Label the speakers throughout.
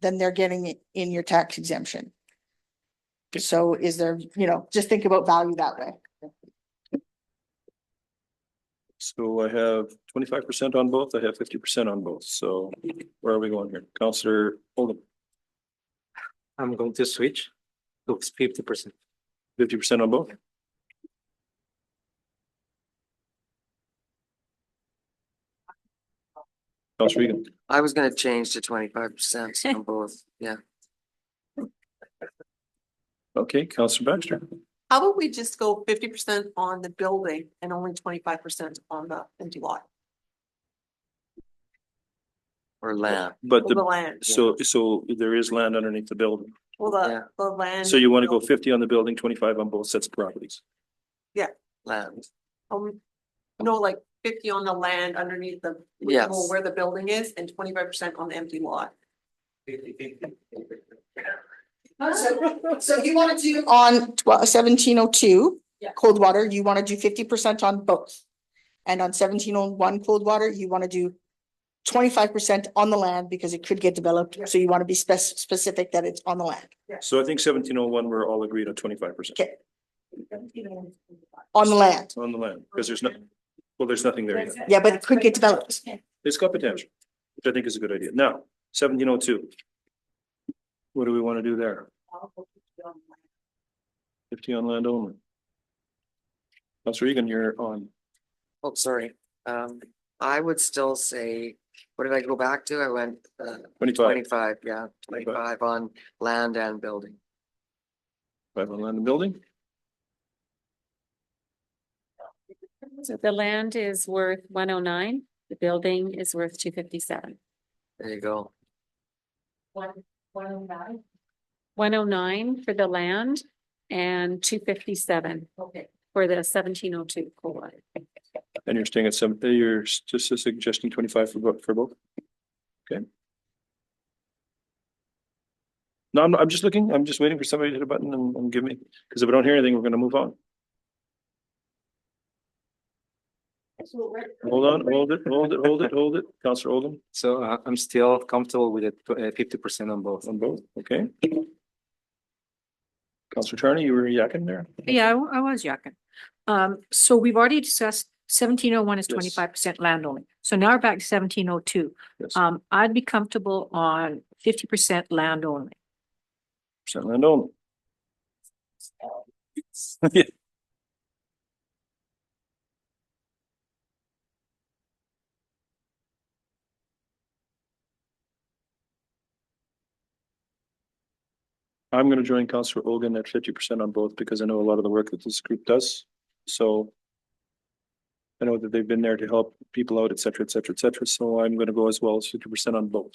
Speaker 1: than they're getting it in your tax exemption. So is there, you know, just think about value that way.
Speaker 2: So I have twenty-five percent on both. I have fifty percent on both. So where are we going here? Counselor Oldham,
Speaker 3: I'm going to switch to fifty percent.
Speaker 2: fifty percent on both? Counselor Regan,
Speaker 4: I was gonna change to twenty-five percent on both, yeah.
Speaker 2: okay, Counselor Baxter,
Speaker 5: How about we just go fifty percent on the building and only twenty-five percent on the empty lot,
Speaker 4: Or land,
Speaker 2: but
Speaker 5: or the
Speaker 2: the,
Speaker 5: land,
Speaker 2: so, so there is land underneath the building.
Speaker 5: well,
Speaker 4: Yeah.
Speaker 5: the, the land.
Speaker 2: So you want to go fifty on the building, twenty-five on both sets of properties.
Speaker 4: land,
Speaker 5: Um, no, like fifty on the land underneath the.
Speaker 4: Yes.
Speaker 5: well, Where the building is and twenty-five percent on the empty lot.
Speaker 1: So you want to do. On seventeen oh two.
Speaker 5: Yeah.
Speaker 1: Cold water, you want to do fifty percent on both. And on seventeen oh one cold water, you want to do twenty-five percent on the land because it could get developed. So you want to be spec- specific that it's on the land.
Speaker 2: So I think seventeen oh one, we're all agreed on twenty-five percent
Speaker 1: Okay. On the land.
Speaker 2: on the land, because there's not, well, there's nothing there yet.
Speaker 1: Yeah, but it could get developed.
Speaker 2: It's got potential, which I think is a good idea. Now, seventeen oh two. What do we want to do there? Fifty on land only. Counselor Egan, you're on.
Speaker 4: oh, sorry, um, I would still say, what did I go back to? I went, uh,
Speaker 2: Twenty-five,
Speaker 4: twenty-five, yeah,
Speaker 2: Twenty-five.
Speaker 4: twenty-five on land and building.
Speaker 2: five on land and building.
Speaker 6: So the land is worth one oh nine, the building is worth two fifty-seven.
Speaker 4: There you go,
Speaker 6: One, one oh nine? One oh nine for the land and two fifty-seven. Okay. For the seventeen oh two COLA.
Speaker 2: And you're staying at seven, uh, you're s- just suggesting twenty-five for both, for both? Okay. No, I'm, I'm just looking, I'm just waiting for somebody to hit a button and, and give me, because if I don't hear anything, we're gonna move on. Hold on, hold it, hold it, hold it, hold it, Counselor Oldham
Speaker 3: So uh, I'm still comfortable with it, uh, fifty percent on both.
Speaker 2: on both, okay? Counselor Charlie, you were yakking there?
Speaker 7: Yeah, I wa- I was yakking. Um, so we've already discussed seventeen oh one is
Speaker 2: Yes.
Speaker 7: twenty-five percent land only. So now we're back to seventeen oh two.
Speaker 2: Yes.
Speaker 7: Um, I'd be comfortable on fifty percent land only.
Speaker 2: Percent land only. Yeah. I'm gonna join Counselor Ogan at fifty percent on both because I know a lot of the work that this group does, so. I know that they've been there to help people out, et cetera, et cetera, et cetera, so I'm gonna go as well as fifty percent on both.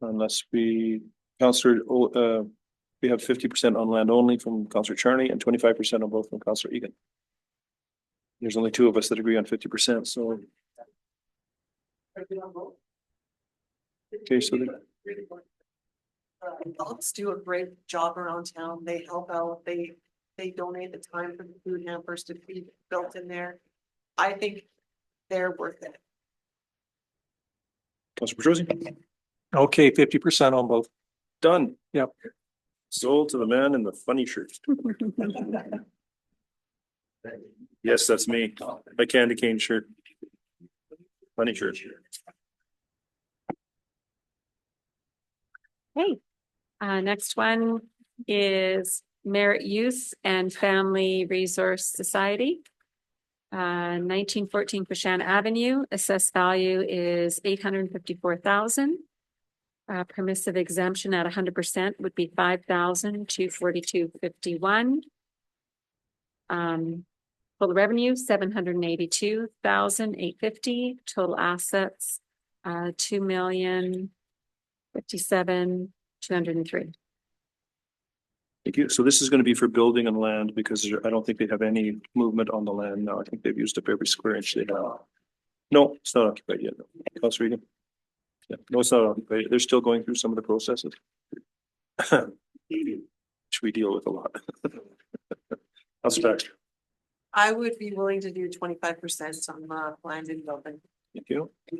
Speaker 2: Unless we, Counselor, O- uh, we have fifty percent on land only from Counselor Charney and twenty-five percent on both from Counselor Egan. There's only two of us that agree on fifty percent, so, okay, so the-
Speaker 5: Adults do a great job around town, they help out, they, they donate the time for the food hampers to be built in there. I think they're worth it.
Speaker 2: Counselor Petrosi,
Speaker 8: Okay, fifty percent on both.
Speaker 2: done.
Speaker 8: Yep.
Speaker 2: Sold to the man in the funny shirt. Yes, that's me, a candy cane shirt. Funny shirt.
Speaker 6: Hey, uh, next one is Merit Youth and Family Resource Society. Uh, nineteen fourteen Pashan Avenue, assessed value is eight hundred and fifty-four thousand. Uh, permissive exemption at hundred percent would be five thousand two forty-two fifty-one. Um, total revenue, seven hundred and eighty-two thousand eight fifty, total assets, uh, two million fifty-seven, two hundred and three.
Speaker 2: Thank you. So this is gonna be for building and land because there- I don't think they have any movement on the land now. I think they've used up every square inch they have. No, it's not occupied yet. no. Counselor Regan? Yeah, no, it's not occupied. They're still going through some of the processes. Which we deal with a lot. Counselor Baxter,
Speaker 5: I would be willing to do twenty-five percent on the land and building.
Speaker 2: Thank you.